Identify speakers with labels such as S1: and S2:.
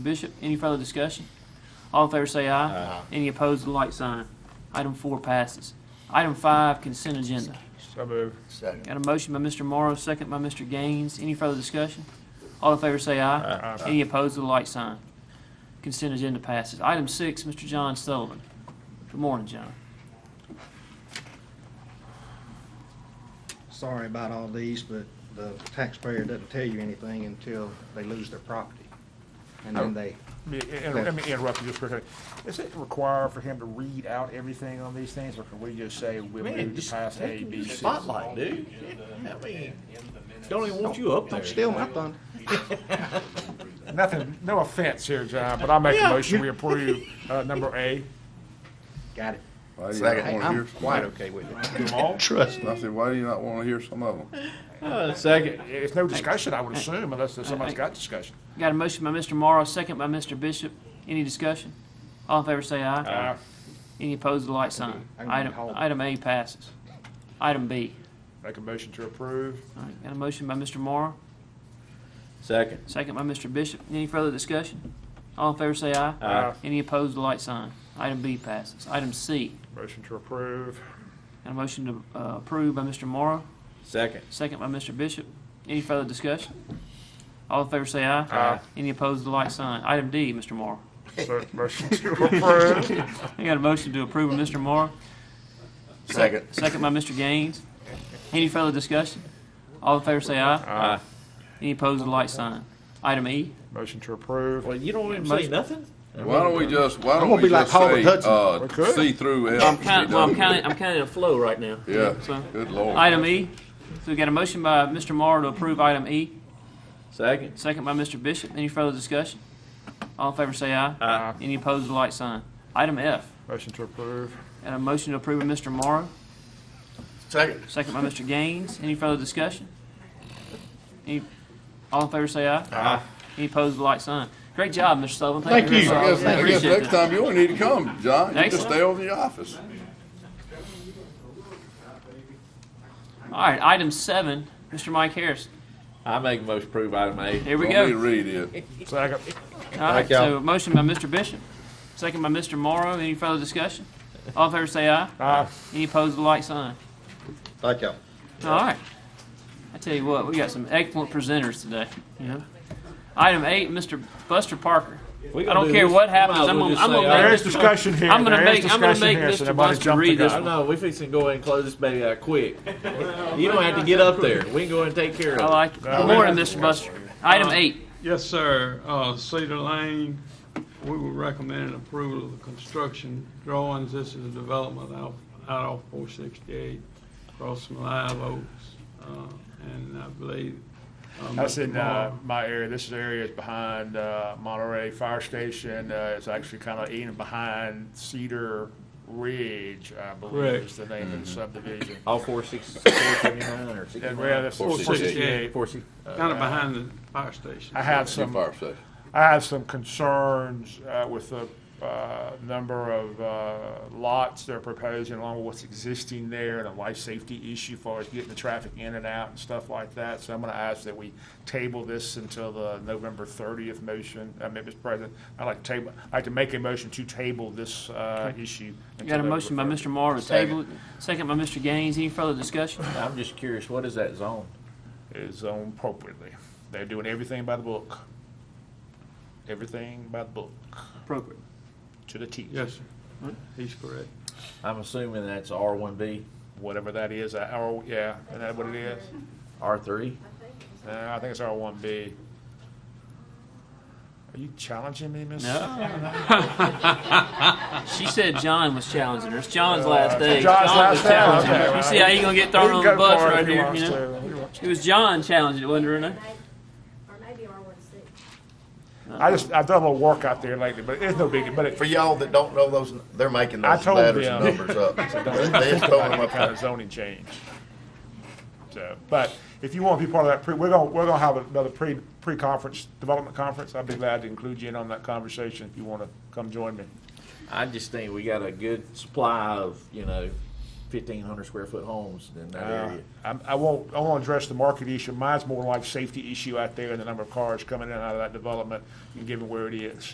S1: Bishop, any further discussion? All in favor say aye.
S2: Aye.
S1: Any opposed, the light sign. Item four passes. Item five, consent agenda.
S3: So moved.
S1: Got
S2: Second.
S1: a motion by Mr. Morrow, second by Mr. Gaines. Any further discussion? All in favor say aye.
S3: Aye.
S1: Any opposed, the light sign. Consent agenda passes. Item six, Mr. John Sullivan. Good morning, John.
S4: sorry about all these, but the taxpayer doesn't tell you anything until they lose their property. And then they,
S3: Let me inter- let me interrupt you just for a second. Is it required for him to read out everything on these things, or can we just say we
S5: Man,
S3: moved to
S5: just
S3: pass A,
S5: take
S3: B,
S5: the
S3: C?
S5: Spotlight, dude. I mean, don't even want you up there.
S4: don't steal my thunder.
S3: Nothing, no offense here, John, but I make a
S5: Yeah.
S3: motion, we approve, uh, number A.
S4: Got it.
S6: Why do you not
S2: Second.
S4: Hey,
S6: want to
S4: I'm
S6: hear?
S4: quite okay with it.
S3: Do them all?
S5: Trust
S6: I said, why do you not want to hear some of them?
S5: Uh, second.
S3: It's no discussion, I would assume, unless there's somebody's got discussion.
S1: Got a motion by Mr. Morrow, second by Mr. Bishop. Any discussion? All in favor say aye.
S3: Uh,
S1: Any opposed, the light sign.
S4: I'm gonna
S1: Item,
S4: hold.
S1: item A passes. Item B.
S3: Make a motion to approve.
S1: All right, got a motion by Mr. Morrow,
S5: Second.
S1: second by Mr. Bishop. Any further discussion? All in favor say aye.
S3: Aye.
S1: Any opposed, the light sign. Item B passes. Item C.
S3: Motion to approve.
S1: Got a motion to uh, approve by Mr. Morrow,
S5: Second.
S1: second by Mr. Bishop. Any further discussion? All in favor say aye.
S3: Aye.
S1: Any opposed, the light sign. Item D, Mr. Morrow.
S3: So, motion to approve.
S1: I got a motion to approve by Mr. Morrow,
S2: Second.
S1: second by Mr. Gaines. Any further discussion? All in favor say aye.
S5: Aye.
S1: Any opposed, the light sign. Item E.
S3: Motion to approve.
S5: Well, you don't even
S1: Most-
S5: say nothing?
S6: Why don't we just, why
S4: I'm
S6: don't
S4: gonna
S6: we
S4: be like
S6: just
S4: Howard
S6: say,
S4: Hudson.
S3: We
S6: uh,
S3: could.
S6: see through F?
S1: I'm kind of, well, I'm kind of, I'm kind of in a flow right now.
S6: Yeah,
S1: So,
S6: good lord.
S1: item E. So we got a motion by Mr. Morrow to approve item E,
S5: Second.
S1: second by Mr. Bishop. Any further discussion? All in favor say aye.
S3: Aye.
S1: Any opposed, the light sign. Item F.
S3: Motion to approve.
S1: Got a motion to approve by Mr. Morrow,
S2: Second.
S1: second by Mr. Gaines. Any further discussion? Any, all in favor say aye.
S5: Aye.
S1: Any opposed, the light sign. Great job, Mr. Sullivan.
S5: Thank
S1: very
S5: you.
S1: much.
S6: I guess, I guess
S1: Appreciate
S6: next
S1: that.
S6: time you won't need to come, John. You just
S1: Excellent.
S6: stay over in your office.
S1: All right, item seven, Mr. Mike Harris.
S5: I make a motion to approve item A.
S1: Here we
S6: Don't
S1: go.
S6: need to read it.
S3: Second.
S1: All right,
S5: Thank y'all.
S1: so motion by Mr. Bishop, second by Mr. Morrow. Any further discussion? All in favor say aye.
S3: Aye.
S1: Any opposed, the light sign.
S5: Thank y'all.
S1: All right. I tell you what, we got some excellent presenters today, you know. Item eight, Mr. Buster Parker.
S5: We
S1: I
S5: gonna
S1: don't
S5: do
S1: care
S5: this.
S1: what
S5: We might
S1: happens,
S5: as
S1: I'm
S5: well
S1: gonna-
S5: just
S1: I'm
S5: say
S1: gonna
S5: aye.
S3: There is discussion here.
S1: I'm gonna
S3: There is
S1: make- I'm gonna
S3: discussion
S1: make
S3: here, so
S1: Mr.
S3: nobody's
S1: Buster
S3: jumped the
S1: read this
S3: gun.
S5: I know, we fixing to go ahead and close this baby out quick. You don't have to get up there. We can go ahead and take care
S1: I
S5: of it.
S1: like it. Good morning, Mr. Buster. Item eight.
S7: Yes, sir. Uh, Cedar Lane, we will recommend approval of the construction drawings. This is a development out, out off four sixty-eight, across from Live Oaks. Uh, and I believe. uh,
S3: That's
S7: Mr.
S3: in uh,
S7: Moore-
S3: my area. This is area is behind uh, Monterey Fire Station. Uh, it's actually kind of even behind Cedar Ridge, I believe
S7: Correct.
S3: is the name of the subdivision.
S5: All four six, four seventy-nine or
S3: And well,
S5: sixty-nine?
S3: that's
S2: 468.
S3: 468.
S5: Four six.
S7: Kinda behind the fire station.
S3: uh, I have
S6: Too
S3: some
S6: far, say.
S3: I have some concerns uh, with the uh, number of uh, lots they're proposing along with what's existing there and a life safety issue as far as getting the traffic in and out and stuff like that. So I'm going to ask that we table this until the November 30th motion. Uh, Mr. President, I'd like to table, I'd like to make a motion to table this uh, issue.
S1: We Got a
S3: until
S1: motion by
S3: November
S1: Mr. Morrow to table it, second by Mr. Gaines. Any further discussion?
S5: I'm just curious, what is that zone?
S3: 30th. Is zoned appropriately. They're doing everything by the book. Everything by the book,
S1: Appropriate.
S3: to the T.
S7: Yes, sir. He's correct.
S5: I'm assuming that's R one B,
S3: whatever that is, uh, R, yeah, isn't that what it is?
S5: R three?
S3: Uh, I think it's R one B. Are you challenging me, Miss?
S1: No. She said John was challenging her. It's John's last day.
S3: Uh, John's
S1: John was
S3: last day,
S1: challenging
S3: okay,
S1: her. You
S3: well,
S1: see how you gonna get
S3: He
S1: thrown
S3: can
S1: on
S3: go
S1: the bus
S3: for it
S1: right
S3: if he
S1: here,
S3: wants
S1: you know?
S3: to. He wants to.
S1: It was John challenging it, wasn't it, Renee?
S8: Or maybe R one six.
S3: I just, I've done a little work out there lately, but it's no big, but
S2: For
S3: it,
S2: y'all that don't know those, they're making
S3: I
S2: those
S3: told
S2: letters and
S3: them.
S2: numbers up.
S3: don't
S2: They just throwing them
S3: about
S2: up
S3: kind
S2: there.
S3: of zoning change. So, but if you want to be part of that, pre, we're gonna, we're gonna have another pre, pre-conference, development conference. I'd be glad to include you in on that conversation if you want to come join me.
S5: I just think we got a good supply of, you know, fifteen hundred square foot homes in that
S3: Uh,
S5: area.
S3: I'm- I won't, I won't address the market issue. Mine's more like safety issue out there and the number of cars coming in and out of that development and given where it is.